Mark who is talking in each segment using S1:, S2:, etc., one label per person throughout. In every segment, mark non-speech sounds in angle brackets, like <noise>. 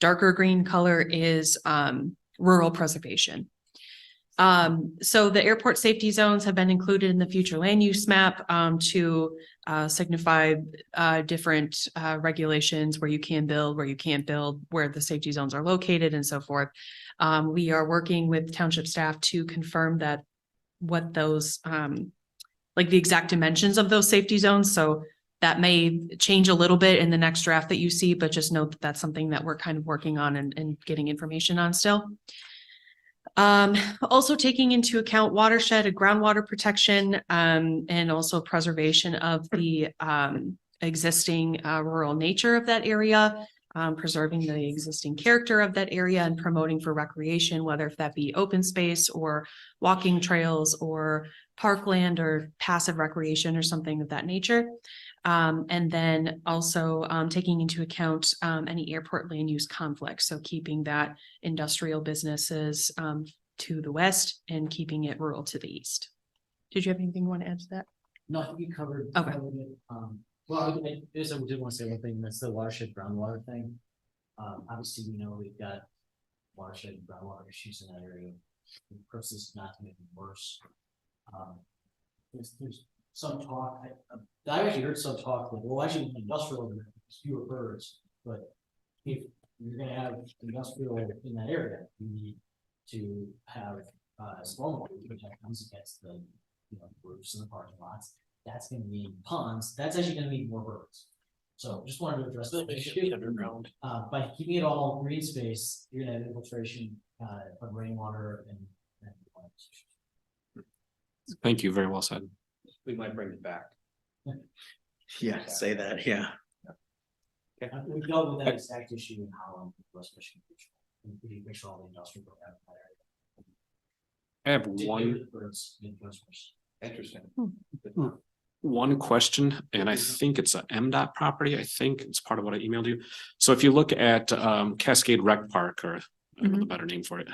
S1: darker green color is um rural preservation. Um, so the airport safety zones have been included in the future land use map um to uh signify uh different uh regulations where you can build, where you can't build, where the safety zones are located and so forth. Um, we are working with township staff to confirm that what those um like the exact dimensions of those safety zones, so that may change a little bit in the next draft that you see, but just know that that's something that we're kind of working on and, and getting information on still. Um, also taking into account watershed and groundwater protection, um, and also preservation of the, um, existing, uh, rural nature of that area, um, preserving the existing character of that area and promoting for recreation, whether if that be open space or walking trails or parkland or passive recreation or something of that nature. Um, and then also, um, taking into account, um, any airport land use conflict. So keeping that industrial businesses, um, to the west and keeping it rural to the east. Did you have anything you want to add to that?
S2: No, I think you covered.
S1: Okay.
S2: covered it. Um, well, I- I guess I did want to say one thing, that's the watershed groundwater thing. Um, obviously, we know we've got watershed and groundwater issues in that area. The purpose is not to make it worse. Um, There's, there's some talk, I, um, I actually heard some talk, like, well, actually industrial, there's fewer birds, but if you're gonna have industrial in that area, you need to have, uh, stormwater, which comes against the, you know, roofs and the parking lots that's gonna mean ponds, that's actually gonna mean more birds. So just wanted to address that issue.
S3: underground.
S2: Uh, by keeping it all green space, you're gonna have infiltration, uh, of rainwater and. and water.
S3: Thank you, very well said.
S4: we might bring it back.
S5: Yeah, say that, yeah.
S2: Uh, We dealt with that exact issue in Holland, West Michigan. And we make sure all the industrial. growth out of that area.
S3: I have
S2: Particularly
S3: one,
S2: the Birds, in West Michigan.
S4: Interesting.
S3: one question, and I think it's a M dot property. I think it's part of what I emailed you. So if you look at um Cascade Rec Park or I don't know the better name for it.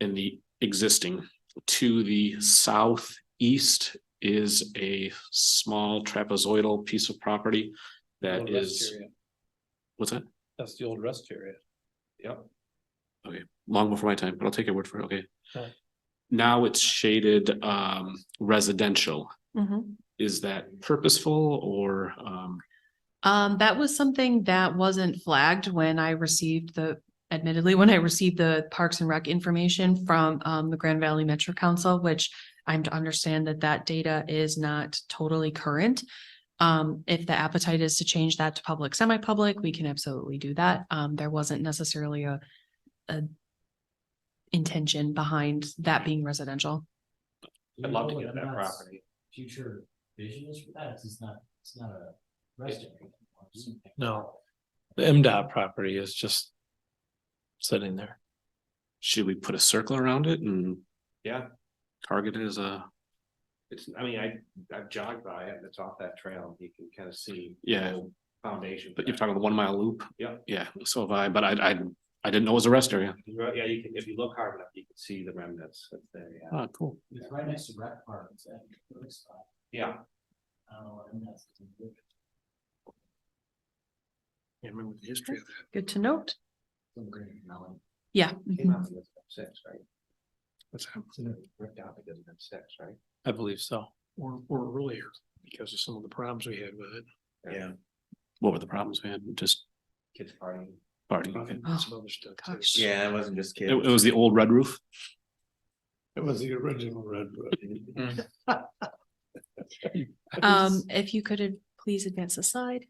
S3: In the existing, to the southeast is a small trapezoidal piece of property that
S4: Old rest
S3: is,
S4: area.
S3: what's that?
S4: That's the old rest area. Yep.
S3: long before my time, but I'll take your word for it, okay?
S4: Okay.
S3: Now it's shaded um residential.
S1: Mhm.
S3: Is that purposeful or um,
S1: Um, that was something that wasn't flagged when I received the, admittedly, when I received the Parks and Rec information from, um, the Grand Valley Metro Council, which I'm to understand that that data is not totally current. Um, if the appetite is to change that to public, semi-public, we can absolutely do that. Um, there wasn't necessarily a, a intention behind that being residential.
S2: Do you
S3: I'd love
S2: know
S3: to
S2: whether
S3: get
S2: or
S3: that
S2: not
S3: property.
S2: Future vision is for that, it's just not, it's not a rest area. anymore, it's something-
S4: No. The MDOT property is just sitting there.
S3: Should we put a circle around it and?
S4: Yeah.
S3: Target it as a,
S4: It's, I mean, I, I've jogged by it, and it's off that trail, you can kind of see. the
S3: Yeah.
S4: old Foundation.
S3: but you're talking about the one mile loop?
S4: Yeah.
S3: Yeah, so have I, but I I I didn't know it was a rest area.
S4: Right, Yeah, you can, if you look hard enough, you can see the remnants uh, that's there, yeah.
S3: Oh, cool.
S2: It's right next to rec park, it's at a good spot.
S4: Yeah.
S2: Oh, and that's.
S3: Yeah, remember the history of
S1: Good to note.
S2: Some green melon.
S1: Yeah.
S4: Came
S1: mhm.
S4: out because of six, right? Ripped out because of six, right?
S6: um, I believe so, or, or earlier, because of some of the problems we had with it.
S5: Yeah.
S3: What were the problems we had? Just
S4: Kids partying.
S3: partying. okay.
S6: and Some other stuff. too.
S1: gosh.
S5: Yeah, it wasn't just
S3: It
S5: kids.
S3: it was the old red roof?
S6: It was the original Red Roof. <laughs>
S1: Um, if you could uh, please advance the slide.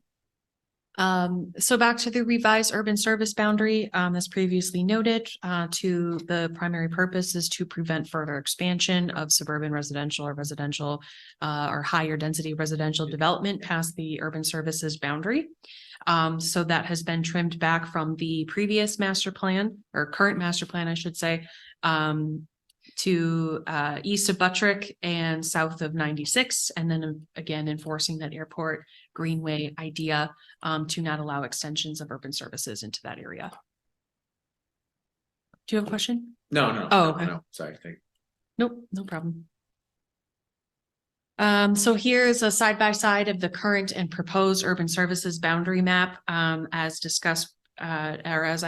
S1: Um, so back to the revised urban service boundary, um, as previously noted, uh, to the primary purpose is to prevent further expansion of suburban residential or residential uh, or higher density residential development past the urban services boundary. Um, so that has been trimmed back from the previous master plan or current master plan, I should say, um, to uh east of Buttrick and south of ninety-six, and then um, again enforcing that airport greenway idea um to not allow extensions of urban services into that area. Do you have a question?
S5: No, no.
S1: Oh,
S5: no,
S1: okay.
S5: no, Sorry, thank
S1: Nope, no problem. Um, so here is a side by side of the current and proposed urban services boundary map um as discussed uh or as